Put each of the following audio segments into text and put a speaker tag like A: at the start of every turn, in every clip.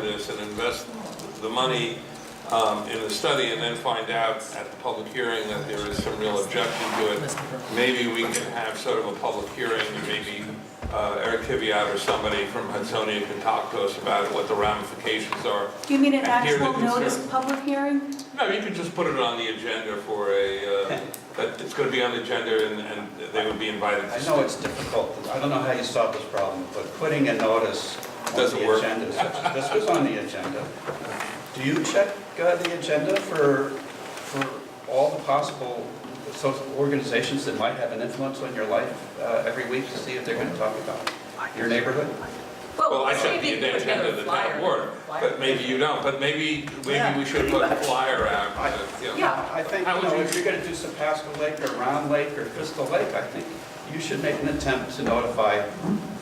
A: this and invest the money um, in the study and then find out at the public hearing that there is some real objection to it, maybe we can have sort of a public hearing and maybe uh, Eric Tiviat or somebody from Hudsonia can talk to us about what the ramifications are.
B: You mean an
A: I hear the
B: actual notice
A: concern.
B: public hearing?
A: No, you could just put it on the agenda for a, uh, that it's going to be on the agenda and- and they would be invited
C: I
A: to
C: know it's difficult, I don't know how you solve this problem, but putting a notice on
A: Doesn't
C: the
A: work.
C: agenda, such- this was on the agenda. Do you check uh, the agenda for, for all the possible social organizations that might have an influence on your life uh, every week to see if they're going to talk about your neighborhood?
A: Well, I said the
D: maybe put
A: intent
D: together
A: of the
D: a flyer.
A: town board, but maybe you don't, but maybe, maybe we should put a flyer out. uh, you know.
C: I think,
A: How
C: you
A: would
C: know,
A: you-
C: if you're going to do Sapasco Lake or Round Lake or Crystal Lake, I think you should make an attempt to notify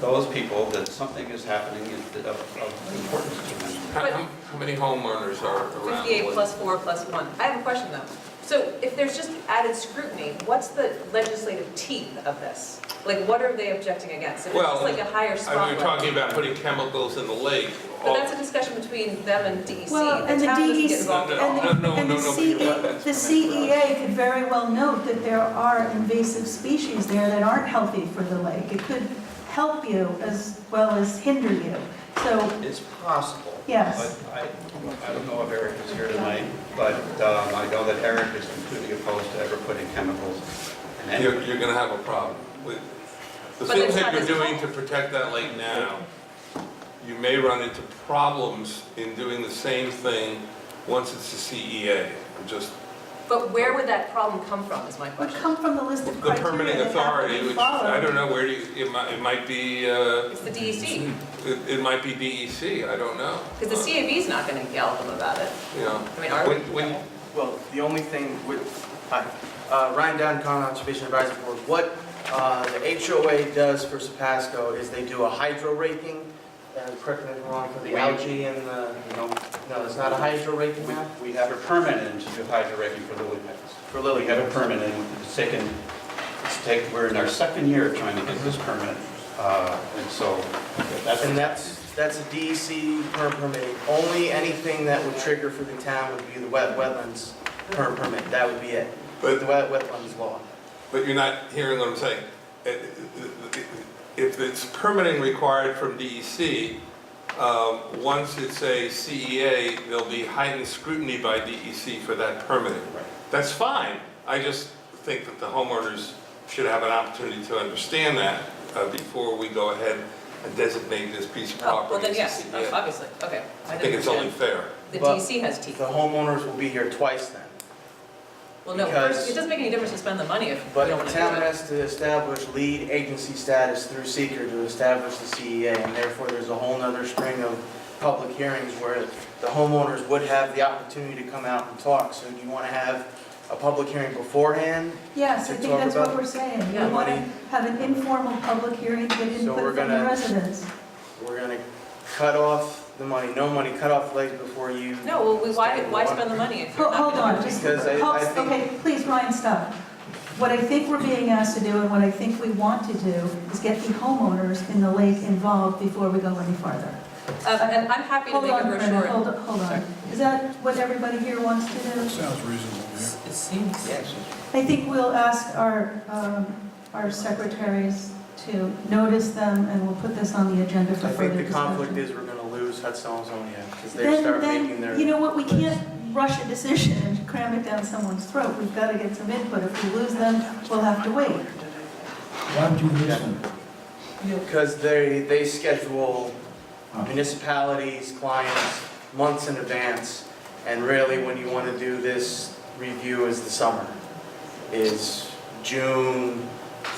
C: those people that something is happening of of importance to them.
A: How how- how many homeowners are around?
D: 58 plus 4 plus 1. I have a question, though. So if there's just added scrutiny, what's the legislative teeth of this? Like, what are they objecting against? If it's
A: Well,
D: just like a higher
A: I mean,
D: spotlight?
A: We're talking about putting chemicals in the lake.
D: But that's a discussion between them and DEC.
B: Well, and the E
D: town doesn't get
B: DEC
D: involved at all.
B: And
A: No, no,
B: the- and the
A: no, no,
B: CE
A: but that's
B: the CEA could very well note that there are invasive species there that aren't healthy for the lake. It could help you as well as hinder you. So,
C: It's possible.
B: Yes.
C: But I, I don't know if Eric is here tonight, but um, I know that Eric is completely opposed to ever putting chemicals in any.
A: You're, you're gonna have a problem with, the
D: But
A: things
D: it's
A: that
D: not
A: you're
D: this
A: doing to
D: whole-
A: protect that lake now, you may run into problems in doing the same thing once it's a CEA. I'm Just,
D: But where would that problem come from, is my
B: it would
D: question?
B: come from the list of
A: the permitting
B: criteria that have
A: authority,
B: to be
A: which, I don't
B: followed.
A: know, where do you, it might, it might be, uh,
D: It's the DEC,
A: It, it might be DEC, I don't know. Uh,
D: because the CAB's not going to yell at them about it. Oh,
A: You know,
D: I mean, are we?
A: when, when,
E: Well, the only thing with, hi, uh, Ryan Down, Conservation Advisory Board, what, uh, the HOA does for Sapasco is they do a hydro raking, uh, correct me if I'm wrong, for the algae and the,
C: No,
E: no, it's not a hydro raking map
C: we have a permit in to do hydroraking for lily pads.
E: for
C: We
E: Lily.
C: have a permit in, it's taken, it's take, we're in our second year trying to get this permit. uh, And so that's.
E: And that's, that's a DEC per permit. Only anything that would trigger for the town would be the wet, wetlands per permit. That would be it.
A: But-
E: The wet, wetlands law.
A: but you're not hearing what I'm saying. Uh, uh, If it's permitting required from DEC, um, once it's a CEA, there'll be heightened scrutiny by DEC for that permitting.
C: Right.
A: That's fine, I just think that the homeowners should have an opportunity to understand that uh, before we go ahead and designate this piece of
D: Oh, well
A: property
D: then,
A: as a
D: yes,
A: CEA.
D: obviously, okay.
A: I
D: didn't
A: think it's only
D: understand.
A: fair.
D: The
E: But-
D: DEC has
E: The
D: teeth.
E: homeowners will be here twice then.
D: Well, no, first,
E: because-
D: it doesn't make any difference to spend the money if you
E: But
D: don't want
E: the
D: to do it.
E: town has to establish lead agency status through seeker to establish the CEA, and therefore there's a whole nother string of public hearings where the homeowners would have the opportunity to come out and talk. So do you want to have a public hearing beforehand?
B: Yes, I
E: to
B: think
E: talk
B: that's what
E: about
B: we're saying.
D: Yeah.
B: We want to
E: money.
B: have an informal public hearing, get
E: So we're
B: input from the
E: gonna-
B: residents.
E: We're going to cut off the money, no money, cut off legs before you.
D: No, well, we- why, why spend the money if you're
B: Ho-
D: not
B: Hold
D: gonna do
B: on,
D: it?
B: just,
E: Because I- I
B: hold-
E: think-
B: okay, please, Ryan, stop. What I think we're being asked to do and what I think we want to do is get the homeowners in the lake involved before we go any farther.
D: Um, And I'm happy to
B: Hold
D: make a
B: on, Brenda, hold
D: brochure.
B: on, hold on. Is that what everybody here wants to do?
F: Sounds reasonable, yeah.
D: It seems.
B: I think we'll ask our, um, our secretaries to notice them and we'll put this on the agenda for
E: I think
B: further
E: the conflict
B: discussion.
E: is we're going to lose Hudson Zonia because they
B: Then,
E: start making their.
B: then, you know what, we
E: list.
B: can't rush a decision and cram it down someone's throat. We've got to get some input. If we lose them, we'll have to wait.
F: Why don't you listen?
E: Because they, they schedule municipalities, clients, months in advance, and really when you want to do this review is the summer, is June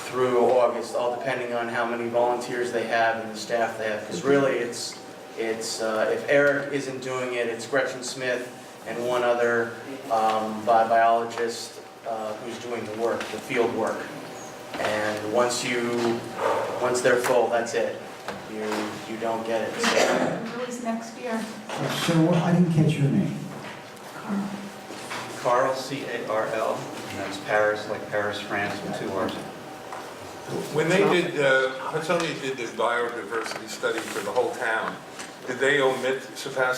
E: through August, all depending on how many volunteers they have and the staff they have. Because really, it's, it's, uh, if Eric isn't doing it, it's Gretchen Smith and one other um, bi- biologist uh, who's doing the work, the field work. And once you, once they're full, that's it. You, you don't get it. So
B: Release next year.
F: So what- I didn't catch your name.
B: Carl.
C: Carl, C-A-R-L, and that's Paris, like Paris, France, with two R's.
A: When they did, uh, Hudsonia did the biodiversity study for the whole town, did they omit Sepasko